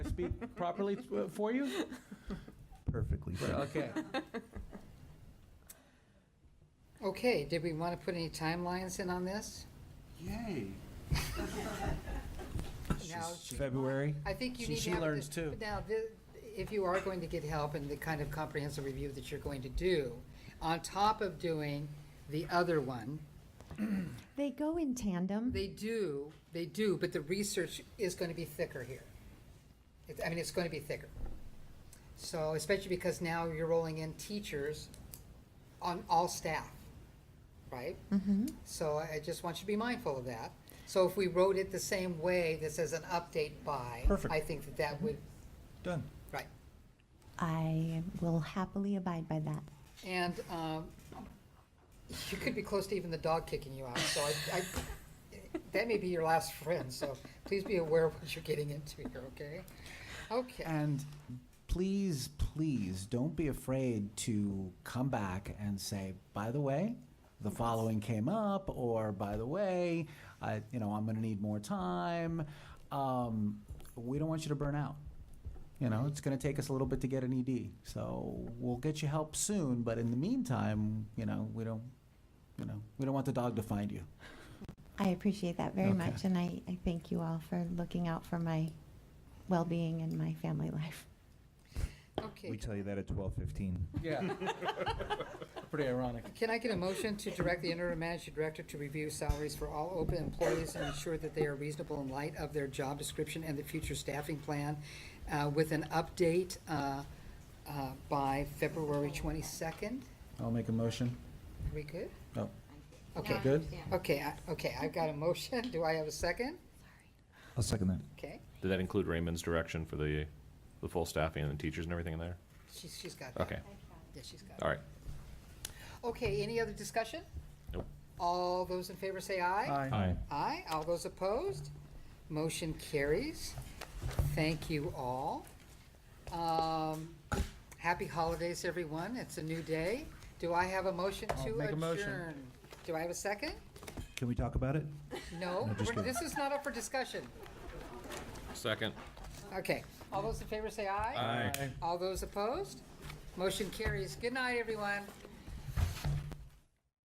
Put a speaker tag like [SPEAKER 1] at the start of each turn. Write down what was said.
[SPEAKER 1] speak properly uh, for you?
[SPEAKER 2] Perfectly.
[SPEAKER 1] Right, Okay.
[SPEAKER 3] Okay, did we want to put any timelines in on this?
[SPEAKER 2] Yay.
[SPEAKER 3] Now,
[SPEAKER 1] February?
[SPEAKER 3] I think you
[SPEAKER 1] She-
[SPEAKER 3] need to
[SPEAKER 1] she
[SPEAKER 3] have. the-
[SPEAKER 1] learns too.
[SPEAKER 3] Now, the- if you are going to get help in the kind of comprehensive review that you're going to do, on top of doing the other one,
[SPEAKER 4] They go in tandem.
[SPEAKER 3] they do, they do, but the research is going to be thicker here. It's- I mean, it's going to be thicker. So especially because now you're rolling in teachers on all staff, right?
[SPEAKER 4] Mm-hmm.
[SPEAKER 3] So I I just want you to be mindful of that. So if we wrote it the same way, this is an update by.
[SPEAKER 1] Perfect.
[SPEAKER 3] I think that that would,
[SPEAKER 1] Done.
[SPEAKER 3] right.
[SPEAKER 4] I will happily abide by that.
[SPEAKER 3] And um, you could be close to even the dog kicking you out, so I, I, that may be your last friend, so please be aware of what you're getting into here, okay? Okay,
[SPEAKER 2] And please, please don't be afraid to come back and say, by the way, the following came up, or by the way, I, you know, I'm going to need more time. Um, we don't want you to burn out. You know, it's going to take us a little bit to get an ED, so we'll get you help soon. But in the meantime, you know, we don't, you know, we don't want the dog to find you.
[SPEAKER 4] I appreciate that very
[SPEAKER 2] Okay.
[SPEAKER 4] much, and I, I thank you all for looking out for my well being and my family life.
[SPEAKER 3] okay.
[SPEAKER 5] tell you that at 12:15.
[SPEAKER 1] Yeah. Pretty ironic.
[SPEAKER 3] Can I get a motion to direct the interim managing director to review salaries for all open employees and ensure that they are reasonable in light of their job description and the future staffing plan uh, with an update uh, uh, by February 22nd?
[SPEAKER 2] I'll make a motion.
[SPEAKER 3] Are we good?
[SPEAKER 2] Oh,
[SPEAKER 3] Okay,
[SPEAKER 2] good.
[SPEAKER 3] okay, I- okay, I've got a motion. Do I have a second?
[SPEAKER 5] I'll second that.
[SPEAKER 3] Okay,
[SPEAKER 6] Did that include Raymond's direction for the, the full staffing and the teachers and everything in there?
[SPEAKER 3] she's, she's got that.
[SPEAKER 6] Okay,
[SPEAKER 3] Yeah, she's got it.
[SPEAKER 6] all right.
[SPEAKER 3] Okay, any other discussion?
[SPEAKER 6] Nope.
[SPEAKER 3] All those in favor say aye.
[SPEAKER 5] Aye.
[SPEAKER 3] Aye. All those opposed? Motion carries. Thank you all. Um, Happy holidays, everyone. It's a new day. Do I have a motion
[SPEAKER 1] I'll
[SPEAKER 3] to
[SPEAKER 1] make a motion.
[SPEAKER 3] adjourn? Do I have a second?
[SPEAKER 5] Can we talk about it?
[SPEAKER 3] No,
[SPEAKER 5] No, just
[SPEAKER 3] we're-
[SPEAKER 5] a-
[SPEAKER 3] this is not up for discussion.
[SPEAKER 6] Second.
[SPEAKER 3] Okay, all those in favor say aye.
[SPEAKER 6] Aye.
[SPEAKER 3] All those opposed? Motion carries. Good night, everyone.